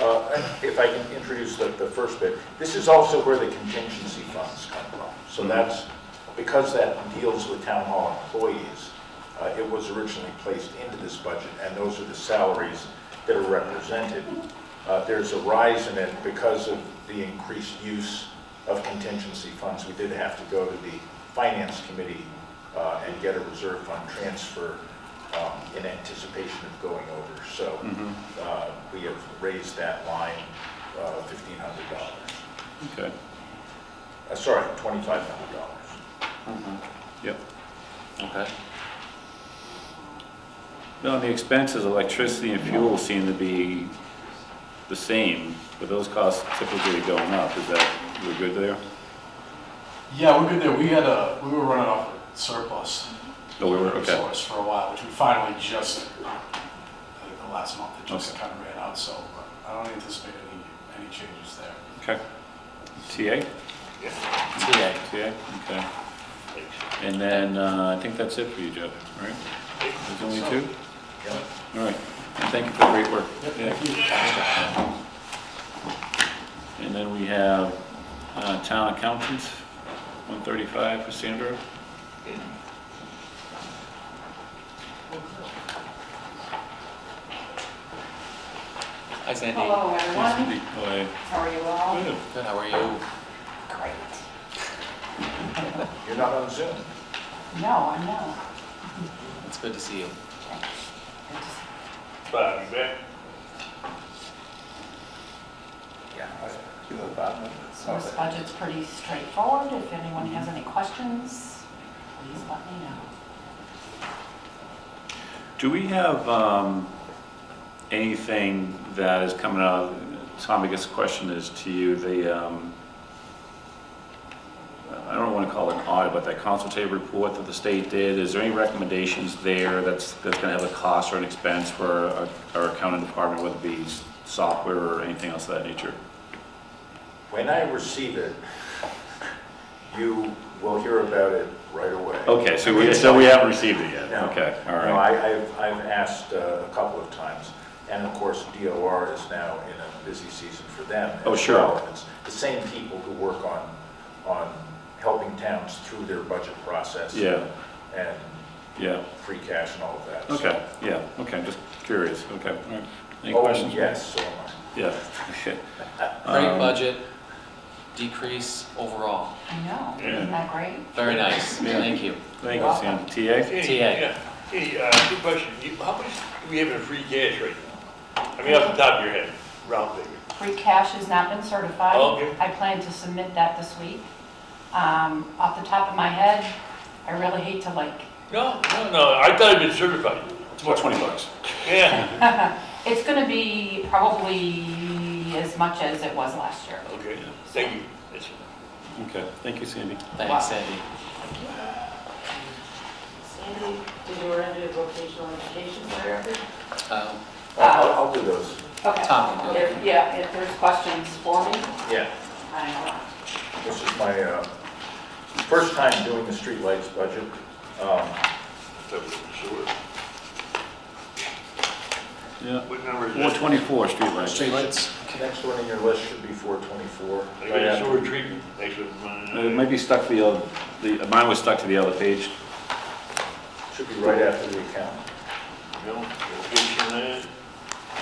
Uh, If I can introduce the, the first bit, this is also where the contingency funds come from. So that's, because that deals with town hall employees, uh, it was originally placed into this budget, and those are the salaries that are represented. Uh, There's a rise in it because of the increased use of contingency funds. We did have to go to the finance committee uh, and get a reserve fund transfer um, in anticipation of going over. So Mm-hmm. uh, we have raised that line uh, $1,500, Okay, Uh, sorry, $2,500. yep, okay. No, and the expenses, electricity and fuel seem to be the same, but those costs typically going up, is that, we're good there? Yeah, we're good there. We had a, we were running off a surplus No, Oh, we were, okay, resource for a while, which we finally just, I think the last month, it just Okay. kind of ran out, so uh, I don't anticipate any, any changes there. okay. TA? TA. TA, okay. And then, uh, I think that's it for you, Jeff, right? There's only two? Yeah. All right, and thank you for the great work. Yeah. And then we have uh, town accountant, 135 for Sandra. Hi Sandy. Hello, everyone. Cindy, oh, How are you I- all? good. Good, how are you? Great. You're not on Zoom. No, I'm not. It's good to see you. I just- Yeah. So this budget's pretty straightforward. If anyone has any questions, please let me know. Do we have um, anything that is coming out, Tom, I guess the question is to you, the, um, I don't want to call it an audit, but that consultative report that the state did, is there any recommendations there that's, that's going to have a cost or an expense for our- our accounting department, whether it be software or anything else of that nature? When I receive it, you will hear about it right away. Okay, so we, so we haven't received it yet? No. Okay, all No, right. I, I've, I've asked uh, a couple of times, and of course, DOR is now in a busy season for them. Oh, as sure. well. It's the same people who work on, on helping towns through their budget process. Yeah, And yeah, free cash and all of that. so- okay, yeah, okay, just curious, okay. all right. Any Oh, questions? Yes, so am I. Yeah, okay. Great Um, budget, decrease overall. I know, isn't Yeah. that great? Very nice, Yeah. thank you. Thank you, Sam. TA? Hey, TA. yeah. Hey, uh, good question. You- How much do we have in free cash right now? I mean, off the top of your head, round figure. Free cash has not been certified. Okay. I plan to submit that this week. Um, Off the top of my head, I really hate to like, No, no, no, I thought it'd been certified. It's about 20 bucks. Yeah. it's going to be probably as much as it was last year. Okay, thank you. That's- Okay, thank you, Sandy. Wow. Thanks Sandy. Sandy, did you run into vocational education therapy? Um, I'll, I'll do those. Okay. Tom can do it. If- Yeah, if there's questions for me, Yeah. I will. This is my uh, first time doing the streetlights budget. Um, that was Sure. Yeah. What number is that? 424 streetlights. Streetlights. Next one in your list should be 424. I got a sewer treatment. Thanks for running Uh, It might be stuck to the, other- the, mine was stuck to the other page. Should be right after the account. Joe, location there.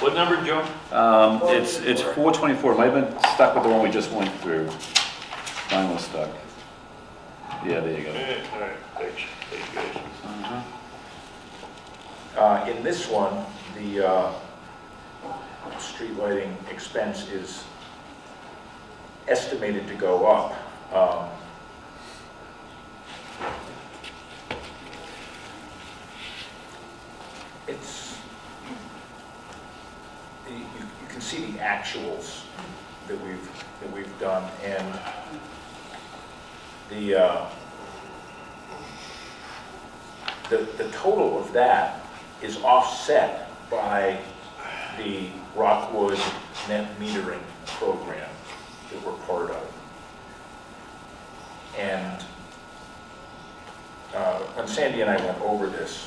What number, Joe? Um, It's, it's 424, it might have been stuck with the one we just went through. Mine was stuck. Yeah, there you go. Yeah, all right, thanks. Thank you guys. Uh, In this one, the uh, street lighting expense is estimated to go up. Um, It's, you- you you can see the actuals that we've, that we've done, and the, uh, the, the total of that is offset by the Rockwood net metering program that we're part of. And uh, when Sandy and I went over this,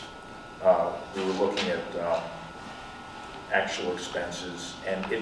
uh, we were looking at um, actual expenses, and it